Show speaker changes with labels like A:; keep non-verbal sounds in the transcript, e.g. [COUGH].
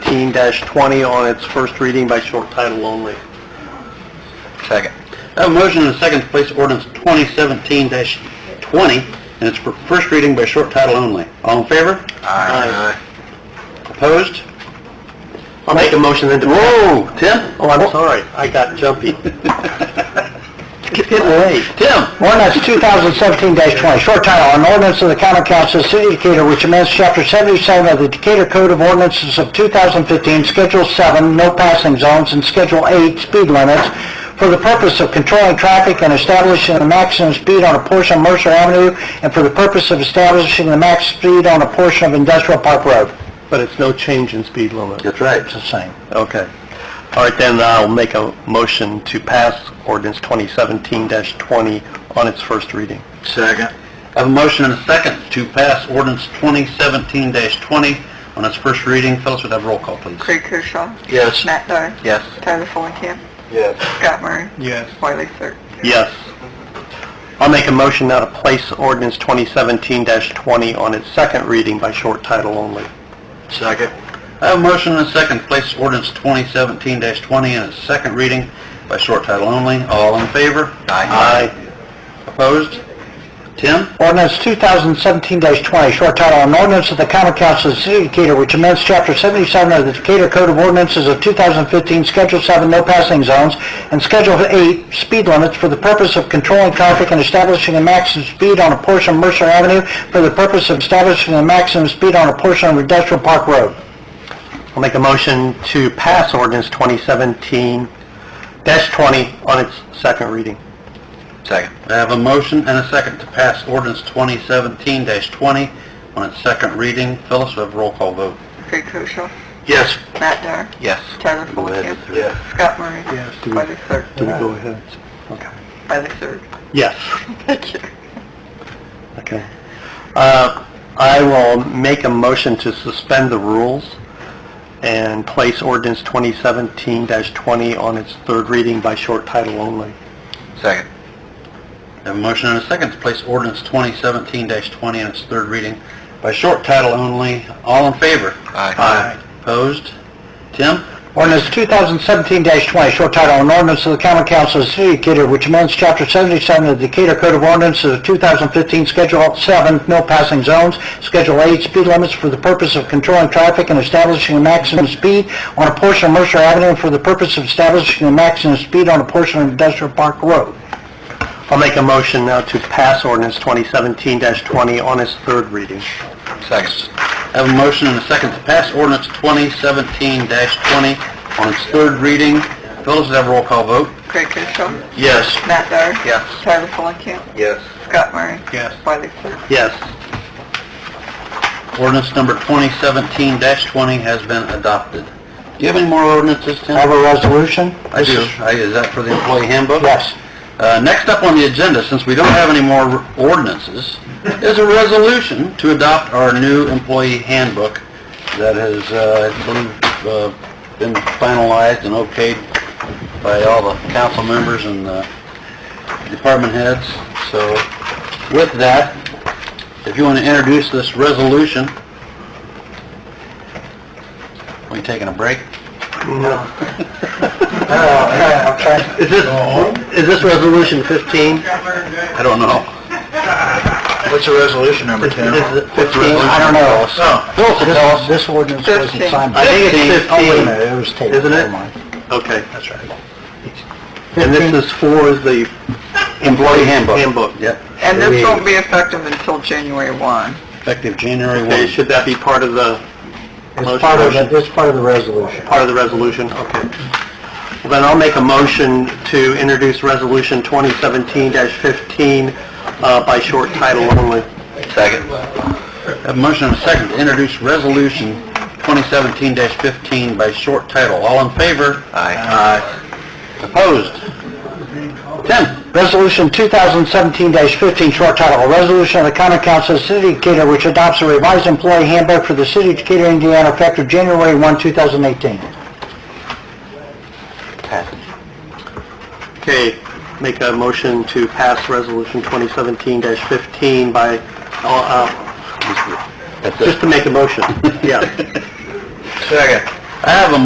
A: 2015-20 on its first reading by short title only.
B: Second.
A: I have a motion and a second to place ordinance 2017-20 and its for first reading by short title only. All in favor? Opposed? I'll make a motion then to... Whoa, Tim? Oh, I'm sorry, I got jumpy. Get away. Tim?
B: Ordinance 2017-20, short title, an ordinance of the common council of the city of Decatur which amends chapter 77 of the Decatur Code of Ordinances of 2015, Schedule 7, no passing zones, and Schedule 8, speed limits, for the purpose of controlling traffic and establishing the maximum speed on a portion of Mercer Avenue, and for the purpose of establishing the max speed on a portion of Industrial Park Road.
A: But it's no change in speed limit.
B: That's right. It's the same.
A: Okay. All right, then I'll make a motion to pass ordinance 2017-20 on its first reading.
B: Second.
A: I have a motion and a second to pass ordinance 2017-20 on its first reading. Phyllis, would have roll call, please?
C: Craig Koshaw.
B: Yes.
C: Matt Dyer.
A: Yes.
C: Tyler Fulenkamp.
B: Yes.
C: Scott Murray.
A: Yes.
C: Wiley Sir.
A: Yes. I'll make a motion now to place ordinance 2017-20 on its second reading by short title only.
B: Second.
A: I have a motion and a second to place ordinance 2017-20 in its second reading by short title only. All in favor?
B: Aye.
A: Opposed? Tim?
B: Ordinance 2017-20, short title, an ordinance of the common council of the city of Decatur which amends chapter 77 of the Decatur Code of Ordinances of 2015, Schedule 7, no passing zones, and Schedule 8, speed limits for the purpose of controlling traffic and establishing a maximum speed on a portion of Mercer Avenue for the purpose of establishing a maximum speed on a portion of Industrial Park Road.
A: I'll make a motion to pass ordinance 2017-20 on its second reading.
B: Second.
A: I have a motion and a second to pass ordinance 2017-20 on its second reading. Phyllis, we have a roll call vote.
C: Craig Koshaw.
A: Yes.
C: Matt Dyer.
A: Yes.
C: Tyler
A: Go ahead
C: Fulenkamp.
A: with it.
C: Scott Murray.
A: Yes.
C: Wiley Sir.
A: ahead? Okay.
C: Wiley Sir.
A: Yes.
C: Thank you.
A: Okay. Uh, I will make a motion to suspend the rules and place ordinance 2017-20 on its third reading by short title only.
B: Second.
A: Have a motion and a second to place ordinance 2017-20 on its third reading by short title only. All in favor?
B: Aye.
A: Opposed? Tim?
B: Ordinance 2017-20, short title, an ordinance of the common council of the city of Decatur which amends chapter 77 of the Decatur Code of Ordinances of 2015, Schedule 7, no passing zones, Schedule 8, speed limits for the purpose of controlling traffic and establishing a maximum speed on a portion of Mercer Avenue and for the purpose of establishing a maximum speed on a portion of Industrial Park Road.
A: I'll make a motion now to pass ordinance 2017-20 on its third reading.
B: Second.
A: I have a motion and a second to pass ordinance 2017-20 on its third reading. Phyllis, have a roll call vote?
C: Craig Koshaw.
A: Yes.
C: Matt Dyer.
A: Yes.
C: Tyler Fulenkamp.
B: Yes.
C: Scott Murray.
A: Yes.
C: Wiley Sir.
A: Yes. Ordinance number 2017-20 has been adopted. Do you have any more ordinances, Tim?
B: Have a resolution?
A: I do. I- Is that for the employee handbook?
B: Yes.
A: Uh, Next up on the agenda, since we don't have any more ordinances, is a resolution to adopt our new employee handbook that has, uh, I believe, uh, been finalized and okayed by all the council members and the department heads. So with that, if you want to introduce this resolution, are we taking a break?
B: No. uh, okay.
A: Is this, is this resolution 15? I don't know.
B: What's the resolution number,
A: Tim? [LAUGHS] Is it 15?
B: I don't know.
A: Oh.
B: Phil, this- This ordinance wasn't
C: Fifteen.
B: signed.
A: I think it's
B: Oh, wait a
A: 15,
B: minute, it was tabled.
A: isn't it?
B: Never mind.
A: Okay.
B: That's right.
A: And this is for the employee handbook? Handbook. Yep.
C: And this won't be effective until January 1.
A: Effective January 1.
B: Okay,
A: Should that be part of the
B: It's part of, the- it's part of the resolution.
A: part of the resolution? Okay. Well, Then I'll make a motion to introduce Resolution 2017-15 uh, by short title only. Second. A motion and a second to introduce Resolution 2017-15 by short title. All in favor? Aye. Opposed? Tim?
B: Resolution 2017-15, short title, a resolution of the common council of the city of Decatur which adopts a revised employee handbook for the city of Decatur, Indiana, effective January 1, 2018.
A: Okay, make a motion to pass Resolution 2017-15 by, uh, uh, just to make a motion, yeah.
B: Second.
A: I have a